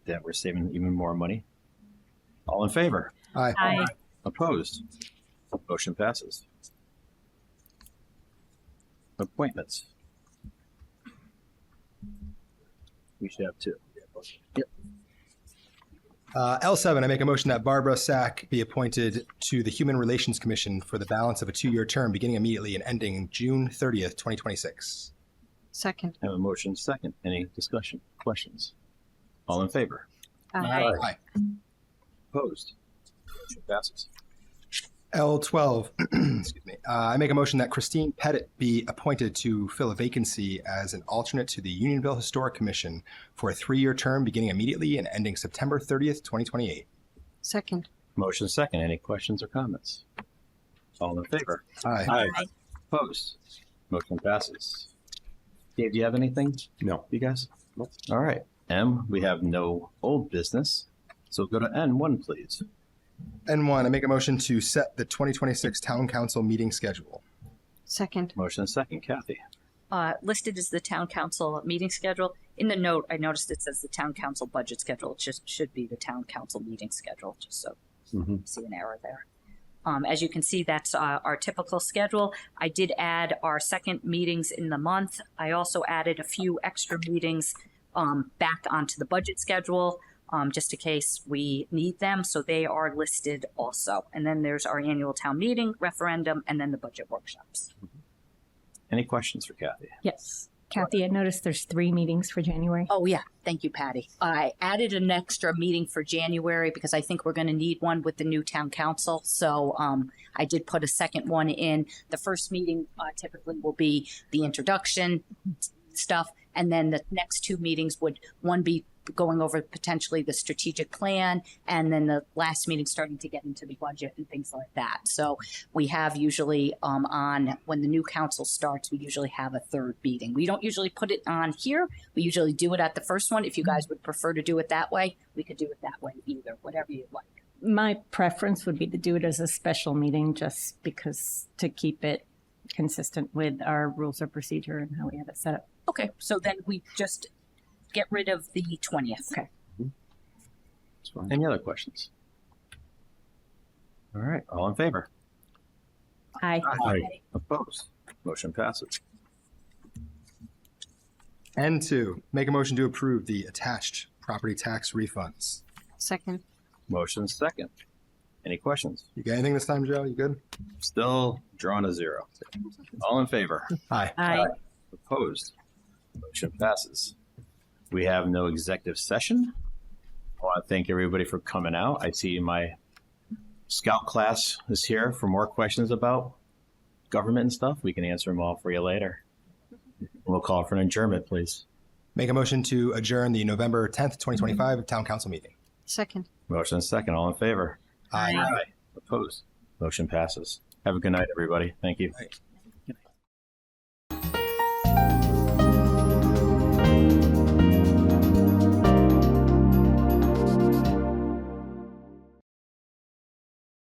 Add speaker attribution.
Speaker 1: that we're saving even more money. All in favor?
Speaker 2: Aye.
Speaker 3: Aye.
Speaker 1: Opposed? Motion passes. Appointments. We should have two. Yep.
Speaker 2: Uh, L7, I make a motion that Barbara Sack be appointed to the Human Relations Commission for the balance of a two-year term beginning immediately and ending June 30th, 2026.
Speaker 3: Second.
Speaker 1: Have a motion second. Any discussion, questions? All in favor?
Speaker 3: Aye.
Speaker 2: Aye.
Speaker 1: Opposed? Motion passes.
Speaker 2: L12, excuse me, uh, I make a motion that Christine Pettit be appointed to fill a vacancy as an alternate to the Unionville Historic Commission for a three-year term beginning immediately and ending September 30th, 2028.
Speaker 3: Second.
Speaker 1: Motion second. Any questions or comments? All in favor?
Speaker 2: Aye.
Speaker 1: Opposed? Motion passes. Dave, do you have anything?
Speaker 4: No.
Speaker 1: You guys? All right. M, we have no old business. So go to N1, please.
Speaker 2: N1, I make a motion to set the 2026 Town Council meeting schedule.
Speaker 3: Second.
Speaker 1: Motion second. Kathy.
Speaker 5: uh, listed as the town council meeting schedule. In the note, I noticed it says the town council budget schedule. It just should be the town council meeting schedule, just so
Speaker 4: Mhm.
Speaker 5: see an error there. Um, as you can see, that's uh, our typical schedule. I did add our second meetings in the month. I also added a few extra meetings um, back onto the budget schedule, um, just in case we need them. So they are listed also. And then there's our annual town meeting, referendum, and then the budget workshops.
Speaker 1: Any questions for Kathy?
Speaker 6: Yes. Kathy, I noticed there's three meetings for January.
Speaker 5: Oh, yeah. Thank you, Patty. I added an extra meeting for January because I think we're going to need one with the new town council. So um, I did put a second one in. The first meeting uh, typically will be the introduction stuff. And then the next two meetings would one be going over potentially the strategic plan and then the last meeting starting to get into the budget and things like that. So we have usually um, on when the new council starts, we usually have a third meeting. We don't usually put it on here. We usually do it at the first one. If you guys would prefer to do it that way, we could do it that way either, whatever you like.
Speaker 6: My preference would be to do it as a special meeting just because to keep it consistent with our rules of procedure and how we have it set up.
Speaker 5: Okay, so then we just get rid of the 20th.
Speaker 6: Okay.
Speaker 4: It's fine.
Speaker 1: Any other questions? All right. All in favor?
Speaker 6: Aye.
Speaker 4: Aye.
Speaker 1: Opposed? Motion passes.
Speaker 2: N2, make a motion to approve the attached property tax refunds.
Speaker 3: Second.
Speaker 1: Motion second. Any questions?
Speaker 2: You got anything this time, Joe? You good?
Speaker 1: Still drawn a zero. All in favor?
Speaker 2: Aye.
Speaker 6: Aye.
Speaker 1: Opposed? Motion passes. We have no executive session. I want to thank everybody for coming out. I see my scout class is here for more questions about government and stuff. We can answer them all for you later. We'll call for an adjournment, please.
Speaker 2: Make a motion to adjourn the November 10th, 2025 Town Council meeting.
Speaker 3: Second.
Speaker 1: Motion and second. All in favor?
Speaker 2: Aye.
Speaker 1: Opposed? Motion passes. Have a good night, everybody. Thank you.